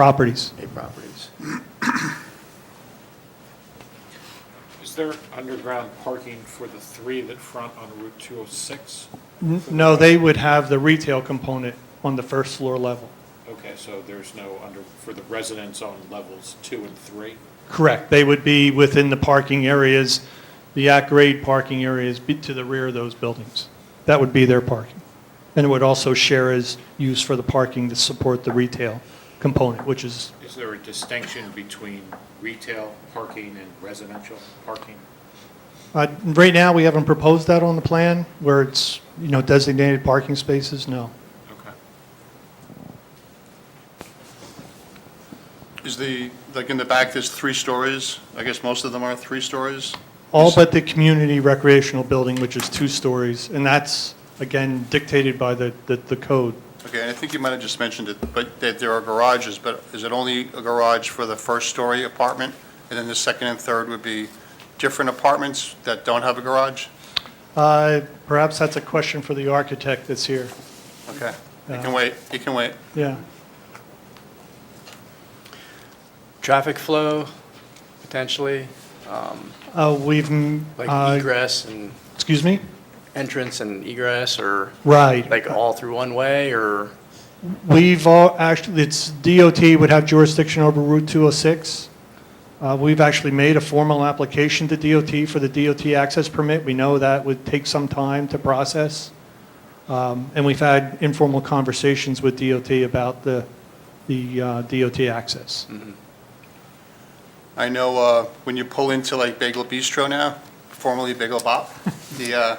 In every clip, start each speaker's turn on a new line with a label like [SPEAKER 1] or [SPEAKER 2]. [SPEAKER 1] properties.
[SPEAKER 2] eight properties.
[SPEAKER 3] Is there underground parking for the three that front on Route 206?
[SPEAKER 1] N- No, they would have the retail component on the first floor level.
[SPEAKER 3] Okay, so there's no under, for the residents on levels two and three?
[SPEAKER 1] Correct. They would be within the parking areas, the at-grade parking areas be- to the rear of those buildings. That would be their parking. And it would also share as use for the parking to support the retail component, which is,
[SPEAKER 3] Is there a distinction between retail parking and residential parking?
[SPEAKER 1] uh, right now, we haven't proposed that on the plan where it's, you know, designated parking spaces, no.
[SPEAKER 3] Okay.
[SPEAKER 4] Is the, like in the back, there's three stories? I guess most of them are three stories?
[SPEAKER 1] All but the community recreational building, which is two stories, and that's, again, dictated by the, the- the code.
[SPEAKER 4] Okay, and I think you might have just mentioned it, but that there are garages, but is it only a garage for the first-story apartment? And then the second and third would be different apartments that don't have a garage?
[SPEAKER 1] Uh, Perhaps that's a question for the architect that's here.
[SPEAKER 4] Okay, you
[SPEAKER 1] Uh,
[SPEAKER 4] can wait, you can wait.
[SPEAKER 1] Yeah.
[SPEAKER 5] traffic flow, potentially,
[SPEAKER 1] Uh, We've, mm,
[SPEAKER 5] like
[SPEAKER 1] uh,
[SPEAKER 5] egress and
[SPEAKER 1] excuse me?
[SPEAKER 5] entrance and egress, or
[SPEAKER 1] Right.
[SPEAKER 5] like all through one way, or,
[SPEAKER 1] We've all, actually, it's DOT would have jurisdiction over Route 206. Uh, We've actually made a formal application to DOT for the DOT access permit. We know that would take some time to process. Um, And we've had informal conversations with DOT about the, the uh, DOT access.
[SPEAKER 4] I know uh, when you pull into like Bagel Bistro now, formerly Bagel Bop, the, uh,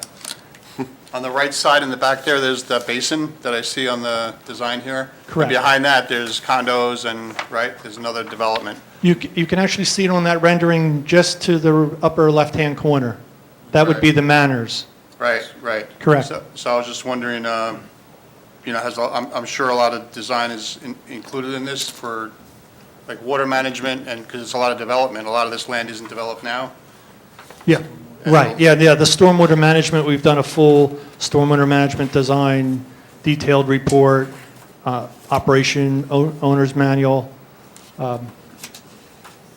[SPEAKER 4] on the right side in the back there, there's the basin that I see on the design here. And
[SPEAKER 1] Correct.
[SPEAKER 4] Behind that, there's condos and, right, there's another development.
[SPEAKER 1] You, c- you can actually see it on that rendering just to the upper left-hand corner. That would be
[SPEAKER 4] Right.
[SPEAKER 1] the Manners.
[SPEAKER 4] Right, right.
[SPEAKER 1] Correct.
[SPEAKER 4] So- So I was just wondering, um, you know, has, a- I'm, I'm sure a lot of design is in- included in this for like water management and, because it's a lot of development, a lot of this land isn't developed now.
[SPEAKER 1] Yeah, right, yeah, yeah, the stormwater management, we've done a full stormwater management design, detailed report, uh, operation o- owner's manual,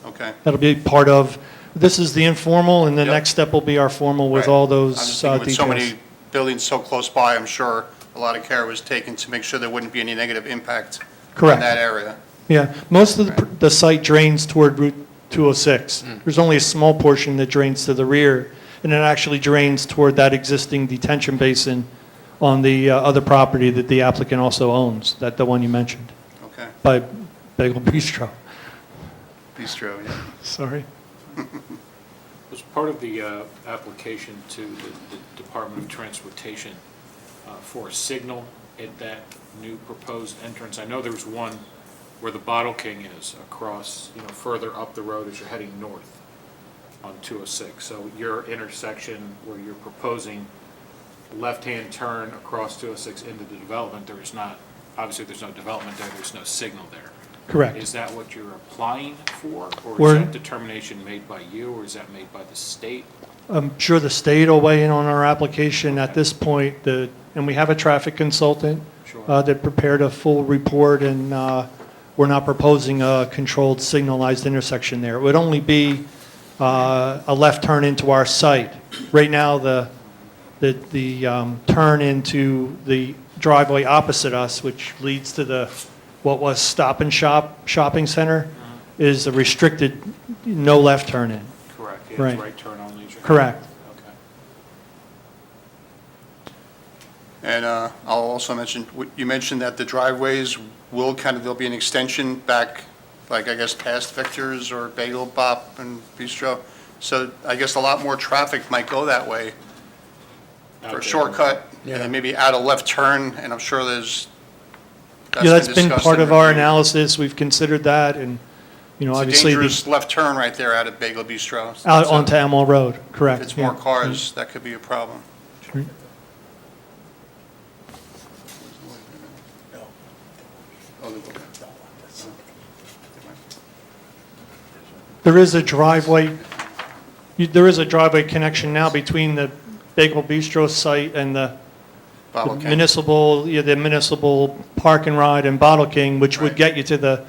[SPEAKER 4] Okay.
[SPEAKER 1] that'll be part of, this is the informal, and the
[SPEAKER 4] Yep.
[SPEAKER 1] next step will be our formal with
[SPEAKER 4] Right.
[SPEAKER 1] all
[SPEAKER 4] I'm just
[SPEAKER 1] those uh,
[SPEAKER 4] thinking With so
[SPEAKER 1] details.
[SPEAKER 4] many buildings so close by, I'm sure a lot of care was taken to make sure there wouldn't be any negative impact in
[SPEAKER 1] Correct.
[SPEAKER 4] that area.
[SPEAKER 1] Yeah, most of the pr- the site drains toward Route 206. There's only a small portion that drains to the rear, and it actually drains toward that existing detention basin on the uh, other property that the applicant also owns, that the one you mentioned.
[SPEAKER 4] Okay,
[SPEAKER 1] by Bagel Bistro.
[SPEAKER 4] bistro, yeah.
[SPEAKER 1] Sorry.
[SPEAKER 3] Was part of the uh, application to the the Department of Transportation uh, for a signal at that new proposed entrance? I know there was one where the Bottle King is across, you know, further up the road as you're heading north on 206. So your intersection where you're proposing left-hand turn across 206 into the development, there is not, obviously, there's no development there, there's no signal there. Is
[SPEAKER 1] Correct.
[SPEAKER 3] that what you're applying for? Or
[SPEAKER 1] We're-
[SPEAKER 3] is that determination made by you, or is that made by the state?
[SPEAKER 1] I'm sure the state will weigh in on our application at this point, the, and we have a traffic consultant
[SPEAKER 3] Sure.
[SPEAKER 1] uh, that prepared a full report, and uh, we're not proposing a controlled signalized intersection there. It would only be uh, a left turn into our site. Right now, the, the, the um, turn into the driveway opposite us, which leads to the, what was Stop and Shop Shopping Center, is a restricted no left turn in.
[SPEAKER 3] Correct. yeah, it's
[SPEAKER 1] Right.
[SPEAKER 3] Right turn only. is your-
[SPEAKER 1] Correct.
[SPEAKER 3] Okay.
[SPEAKER 4] And uh, I'll also mention, w- you mentioned that the driveways will kind of, there'll be an extension back, like I guess past Victor's or Bagel Bop and Bistro. So I guess a lot more traffic might go that way
[SPEAKER 3] Out
[SPEAKER 4] for
[SPEAKER 3] there.
[SPEAKER 4] a shortcut,
[SPEAKER 5] Yeah.
[SPEAKER 4] and then maybe out a left turn, and I'm sure there's.
[SPEAKER 1] Yeah, that's been
[SPEAKER 4] discussed
[SPEAKER 1] part
[SPEAKER 4] and
[SPEAKER 1] of our
[SPEAKER 4] reviewed.
[SPEAKER 1] analysis, we've considered that, and, you know,
[SPEAKER 4] It's a
[SPEAKER 1] obviously, the-
[SPEAKER 4] dangerous left turn right there out of Bagel Bistro.
[SPEAKER 1] out
[SPEAKER 4] So
[SPEAKER 1] onto Amwell Road,
[SPEAKER 4] If
[SPEAKER 1] correct.
[SPEAKER 4] it's more
[SPEAKER 1] yeah.
[SPEAKER 4] cars, that could be a problem.
[SPEAKER 1] There is a driveway, you- there is a driveway connection now between the Bagel Bistro site and the
[SPEAKER 4] Bob,
[SPEAKER 1] the
[SPEAKER 4] okay.
[SPEAKER 1] municipal, yeah, the municipal park and ride and Bottle King, which would
[SPEAKER 4] Right.
[SPEAKER 1] get you to the